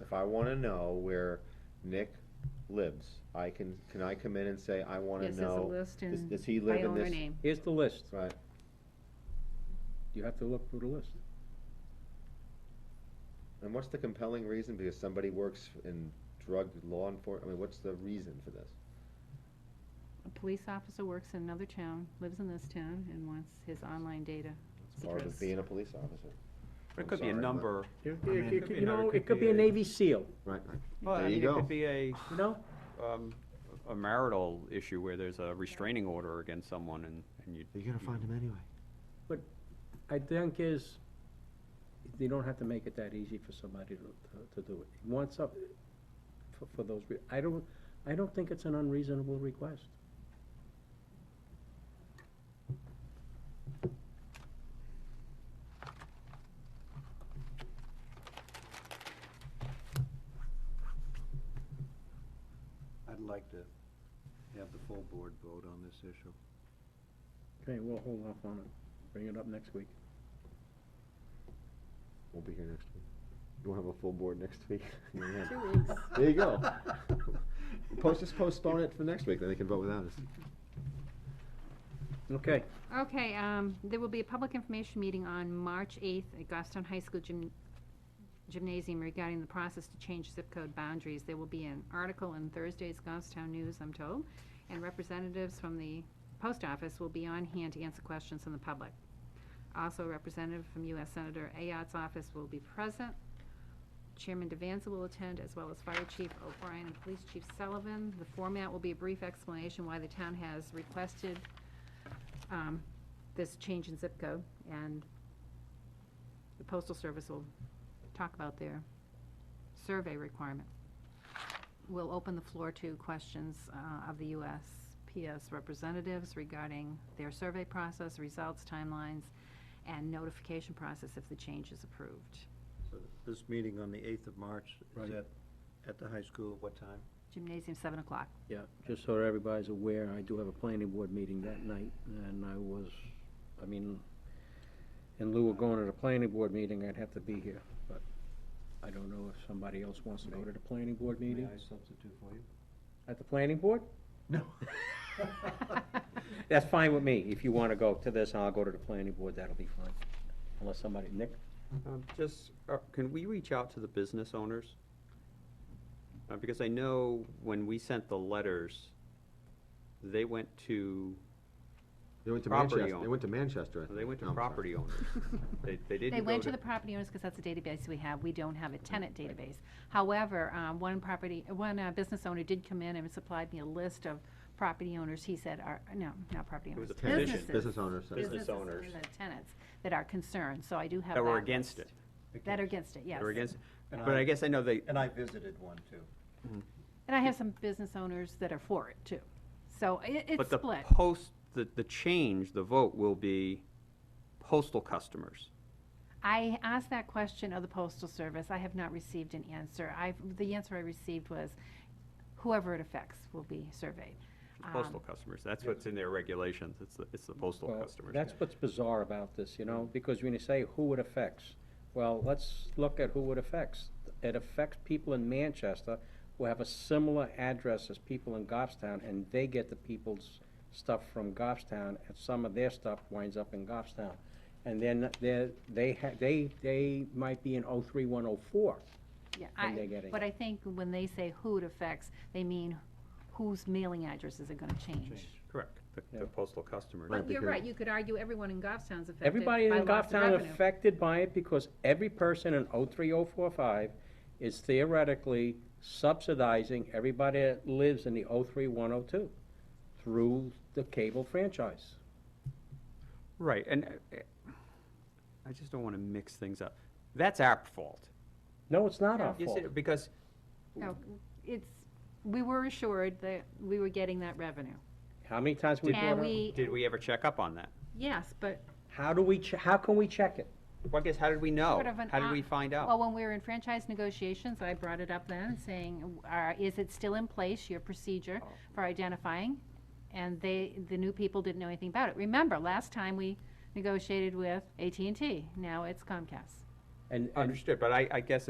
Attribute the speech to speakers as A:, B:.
A: if I wanna know where Nick lives, I can, can I come in and say, I wanna
B: Yes, there's a
A: know,
B: list
A: does,
B: in,
A: does he
B: by
A: live in
B: owner
A: this?
B: name.
C: Here's the list.
A: Right,
C: You have to look through the list.
A: and what's the compelling reason, because somebody works in drug law enforcement, I mean, what's the reason for this?
B: A police officer works in another town, lives in this town, and wants his online data.
A: It's part of
B: Address.
A: being a police officer.
D: It could be a
A: sorry, but-
D: number.
C: You
D: I mean,
C: you- you know, it could be a Navy SEAL,
A: Right,
D: Well, I
A: There you
D: mean,
A: go.
D: It could be a,
C: you know?
D: um, a marital issue where there's a restraining order against someone and, and you.
E: You're gonna find him anyway.
C: I think is, you don't have to make it that easy for somebody to, to do it. You want some, for, for those, rea- I don't, I don't think it's an unreasonable request.
E: I'd like to have the full board vote on this issue.
C: Okay, we'll hold off on it, bring it up next week.
A: we'll be here next week. You wanna have a full board next week? Yeah.
B: Two weeks.
A: There you go. Post, just postpone it for next week, then they can vote without us.
C: Okay,
B: Okay, um, there will be a public information meeting on March eighth at Goffstown High School Gym, Gymnasium regarding the process to change zip code boundaries. There will be an article in Thursday's Goffstown News, I'm told, and representatives from the post office will be on hand to answer questions from the public. Also, a representative from U.S. Senator Ayotte's office will be present. Chairman Devanza will attend, as well as Fire Chief O'Brien and Police Chief Sullivan. The format will be a brief explanation why the town has requested um, this change in zip code, and the postal service will talk about their survey requirement. We'll open the floor to questions uh, of the USPS representatives regarding their survey process, results, timelines, and notification process if the change is approved.
E: So This meeting on the eighth of March,
C: Right.
E: is at, at the high school, what time?
B: Gymnasium, seven o'clock.
C: yeah, just so everybody's aware, I do have a planning board meeting that night, and I was, I mean, in lieu of going to the planning board meeting, I'd have to be here, but I don't know if somebody else wants to go to the planning board
E: May
C: meeting.
E: I substitute for you?
C: At the planning board?
E: No.
C: That's fine with me. If you wanna go to this, I'll go to the planning board, that'll be fine. Unless somebody, Nick?
D: Um, Just, uh, can we reach out to the business owners? Uh, Because I know when we sent the letters, they went to,
A: They went to
D: Property
A: Manchester, they
D: owner.
A: went to Manchester. I
D: they
A: think.
D: went
A: No,
D: to
A: I'm sorry.
D: property owners. They, they didn't go
B: They
D: to.
B: went to the property owners because that's the database we have. We don't have a tenant database. However, um, one property, one uh, business owner did come in and supplied me a list of property owners. He said, are, no, not property
D: It
B: owners.
D: was a petition.
B: businesses-
A: Business owners, sorry.
D: Business
B: businesses
D: owners.
B: and the Tenants that are concerned, so I do have that.
D: That were against it.
B: list. That are against it, yes.
D: They were against, it.
E: And
D: but
E: I-
D: I guess I know they,
E: And I visited one too.
B: And I have some business owners that are for it too. So it, it's
D: But the
B: split.
D: post, the, the change, the vote will be postal customers.
B: I asked that question of the postal service. I have not received an answer. I've, the answer I received was whoever it affects will be surveyed. Um,
D: Postal customers, that's what's in their regulations, it's the, it's the postal
C: Well,
D: customers.
C: That's what's bizarre about this, you know, because when you say who it affects, well, let's look at who it affects. It affects people in Manchester who have a similar address as people in Goffstown, and they get the people's stuff from Goffstown, and some of their stuff winds up in Goffstown. And then they're, they ha- they, they might be in oh three, one oh four.
B: Yeah,
C: And
B: I,
C: they're getting
B: but I think when they say who it affects, they mean whose mailing addresses are gonna change.
D: Correct, the-
C: Yeah.
D: the postal customers.
A: Right.
B: But you're
A: because-
B: right, you could argue everyone in Goffstown's affected
C: Everybody
B: by
C: in
B: loss of
C: Goffstown
B: revenue.
C: affected by it because every person in oh three, oh four, five is theoretically subsidizing everybody that lives in the oh three, one oh two through the cable franchise.
D: Right, and uh, I just don't want to mix things up. That's our fault.
C: No, it's not our
D: Yes,
C: fault.
D: it- Because
B: No, it's, we were assured that we were getting that revenue.
C: How many times we
B: And
C: brought it up?
B: we,
D: did we ever check up on that?
B: yes, but
C: How do we, che- how can we check it?
D: Well, I guess, how did we know?
B: sort of an.
D: How did
B: op-
D: we find
B: Well,
D: out?
B: when we were in franchise negotiations, I brought it up then, saying, are, is it still in place, your procedure for identifying? And they, the new people didn't know anything about it. Remember, last time we negotiated with at and T. now it's Comcast.
C: And, and
D: Understood, but I, I guess